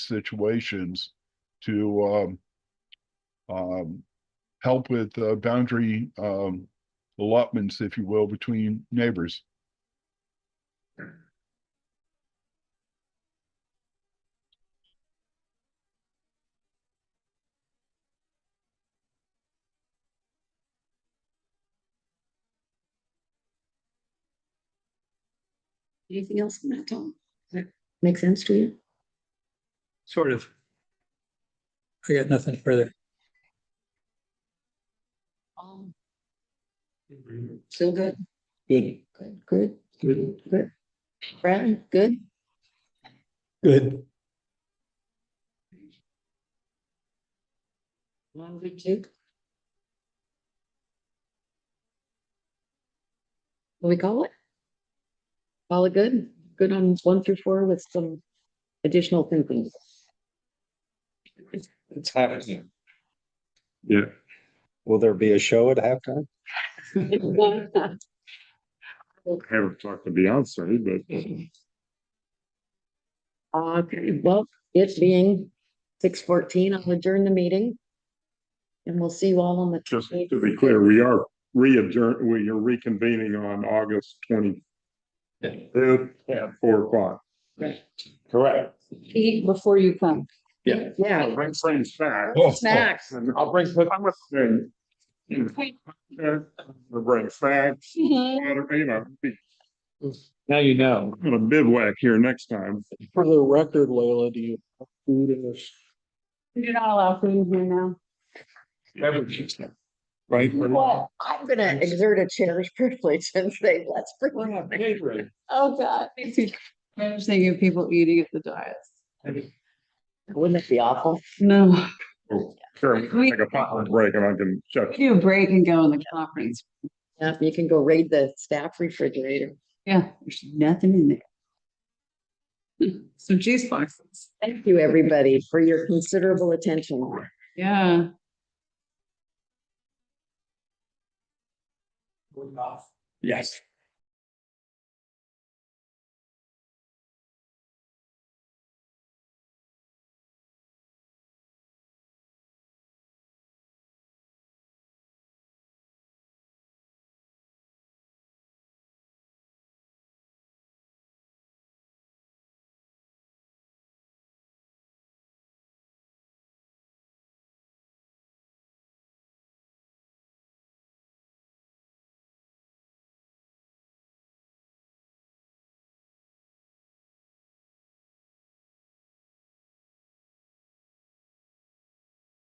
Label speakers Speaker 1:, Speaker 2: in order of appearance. Speaker 1: situations to um, um, help with uh, boundary um, allotments, if you will, between neighbors.
Speaker 2: Anything else on that, Tom? Does that make sense to you?
Speaker 3: Sort of. I got nothing further.
Speaker 2: Um, Still good,
Speaker 3: Good.
Speaker 2: good, good,
Speaker 3: Good.
Speaker 2: good. Brad, good?
Speaker 3: Good.
Speaker 2: I'm good too. What we call it? Call it good? Good on one through four with some additional thinking.
Speaker 4: It's happening.
Speaker 1: Yeah.
Speaker 4: Will there be a show at halftime?
Speaker 5: I haven't talked to Beyonce, but
Speaker 2: Okay, well, it being six fourteen, I'll adjourn the meeting. And we'll see you all on the.
Speaker 5: just to be clear, we are re-adjourn, we are reconvening on August twenty fifth at four o'clock.
Speaker 4: Correct.
Speaker 6: Eat before you come.
Speaker 4: Yeah.
Speaker 2: Yeah,
Speaker 5: Bring friends back.
Speaker 1: Oh,
Speaker 2: snacks.
Speaker 5: And I'll bring. I'm a thing. Bring snacks,
Speaker 6: Mm-hmm.
Speaker 5: water, you know, be
Speaker 4: Now you know.
Speaker 5: on a bivouac here next time.
Speaker 3: For the record, Leila, do you have food in this?
Speaker 6: We do not allow food in here now.
Speaker 4: Right?
Speaker 2: Well, I'm gonna exert a cherished privilege and say, let's bring.
Speaker 4: We're not catering.
Speaker 6: Oh, God. I'm thinking of people eating at the diets.
Speaker 2: Wouldn't that be awful?
Speaker 6: No,
Speaker 5: Sure, take a potluck break and I can check.
Speaker 6: we do a break and go in the conference.
Speaker 2: Yeah, you can go raid the staff refrigerator.
Speaker 6: Yeah, there's nothing in there. Hmm. Some juice boxes.
Speaker 2: Thank you, everybody, for your considerable attention.
Speaker 6: Yeah.
Speaker 4: Yes.